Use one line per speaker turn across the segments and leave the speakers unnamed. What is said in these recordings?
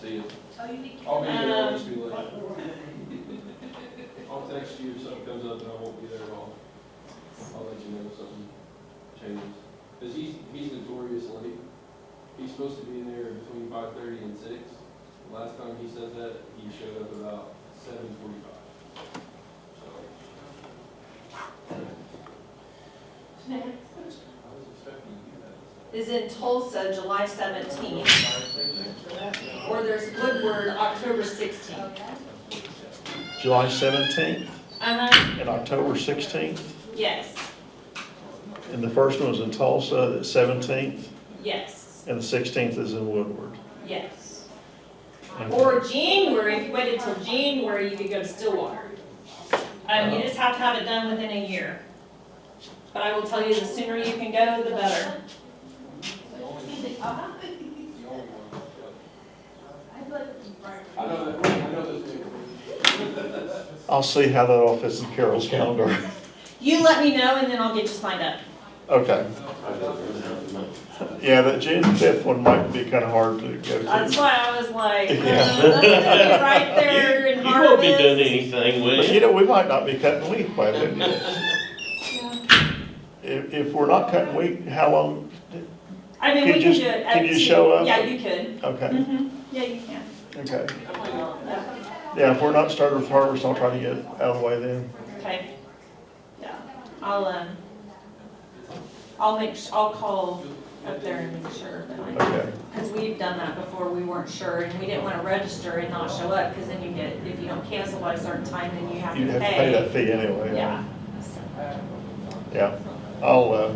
see it.
Oh, you need to.
I'll be there, I'll just be late. I'll
Well,
text you if something comes up and I won't be there at all. I'll let you know if something changes. Cause he's, he's notorious late. He's supposed to be in there between five thirty and six. Last time he said that, he showed up about seven forty-five. So. I was expecting you guys.
is in Tulsa, July seventeenth, or there's Woodward, October sixteenth.
July 17th
Uh-huh,
and October 16th.
yes,
And the first one is in Tulsa, the 17th,
yes,
and the 16th is in Woodward.
yes.
Okay.
Or January, if you waited till January, you could go to Stillwater. Um, you just have to have it done within a year. But I will tell you, the sooner you can go, the better.
The only one.
I'd like to be part
I know that, I know this neighborhood.
I'll see how that all fits in Carol's calendar.
You let me know and then I'll get you signed up.
Okay. Yeah, that June 5th one might be kind of hard to go
That's
to.
why I was like, uh,
Yeah.
that's gonna be right there in
You won't be doing
harvest.
anything, will
But you
you?
know, we might not be cutting wheat by then. If, if we're not cutting wheat, how long?
I mean,
Could
we can
you-
do it.
could
at
you
two.
show up?
Yeah, you could.
Okay,
Mhm. Yeah, you can.
okay.
I might not.
Yeah, if we're not starting with harvest, I'll try to get out of the way then.
Okay. Yeah, I'll, um, I'll make, s- I'll call up there and make sure.
Okay.
Because we've done that before, we weren't sure, and we didn't want to register and not show up, because then you get, if you don't cancel by a certain time, then you have
You'd
to
have to pay
pay.
that fee anyway.
Yeah.
Yeah, I'll, uh,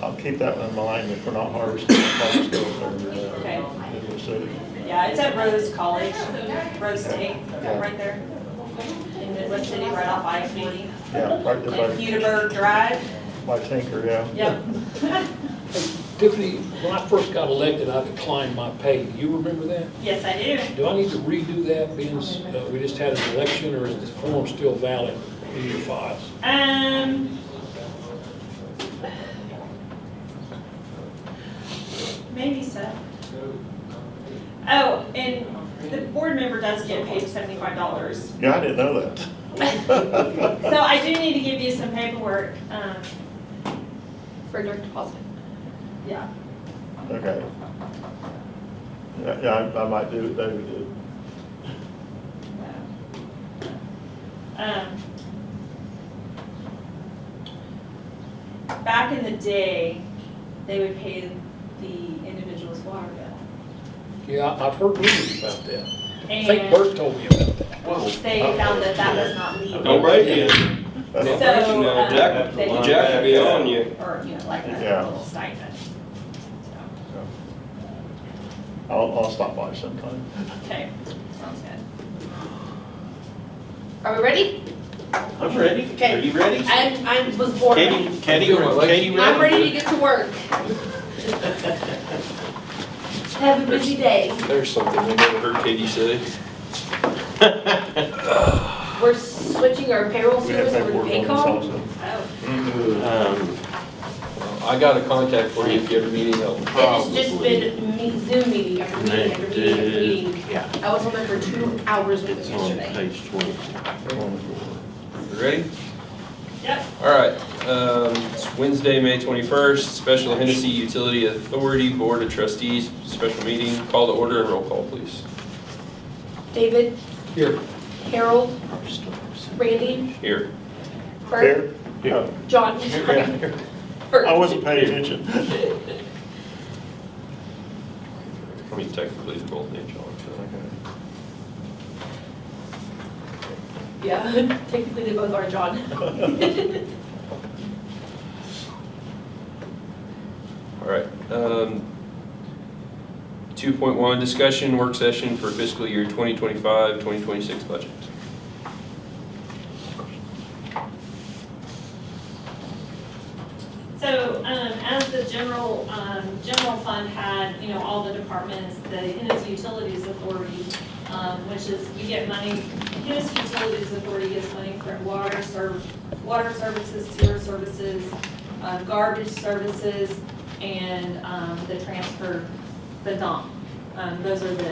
I'll keep that in mind if we're not harvesting. harvest over
Okay.
there in the city.
Yeah, it's at Rose College, Rose State,
Yeah.
right there. In Midwest City, right off I-40,
Yeah, right there by,
Hudaburg Drive.
by Tinker, yeah.
Yep.
Tiffany, when I first got elected, I declined my pay. Do you remember that?
Yes, I do.
Do I need to redo that, being, s- uh, we just had an election, or is the form still valid in your files?
Um. Maybe so. Oh, and the board member does get paid seventy-five dollars.
Yeah, I didn't know that.
So I do need to give you some paperwork, um,
for direct deposit.
yeah.
Okay. Yeah, yeah, I- I might do what David did.
Um, Back in the day, they would pay the individual's water bill.
Yeah, I- I've heard rumors about that. I think
And
Bert told me about that.
they found that that was not legal.
Don't break it.
So,
That's-
um,
Jack,
they-
Jack will be on you.
Or, you know, like a
Yeah.
little stipend. So,
I'll, I'll stop by sometime.
Okay, sounds good.
Are we ready?
I'm ready.
Okay.
Are you ready?
I, I was born ready.
Katie, Katie, Katie
I'm
ready?
ready to get to work. Have a busy day.
There's something I never heard Katie say.
We're switching our payroll
We have
service over to
paperwork on this
Paycom.
also.
Oh,
Um,
I got a contact for you if you ever need help.
It has Oh, just been me- Zoom meeting after meeting after meeting after meeting.
Yeah.
I was on there for two hours with
It's
them
on
yesterday.
page twenty.
Ready?
Yep,
All right, um, it's Wednesday, May 21st, Special Hennessy Utility Authority Board of Trustees, special meeting, call to order and roll call, please.
David,
Here.
Harold, Randy,
Here.
Bert,
Yeah.
John.
Yeah.
Bert.
I wasn't paying attention.
I mean, technically, they're both named John, so.
Yeah, technically they both are John.
All right. um, 2.1, discussion work session for fiscal year 2025, 2026 budget.
so, um, as the general, um, general fund had, you know, all the departments, the Hennessy Utilities Authority, um, which is, we get money, Hennessy Utilities Authority gets money from water serv, water services, sewer services, uh, garbage services, and, um, the transfer, the dump. Um, those are the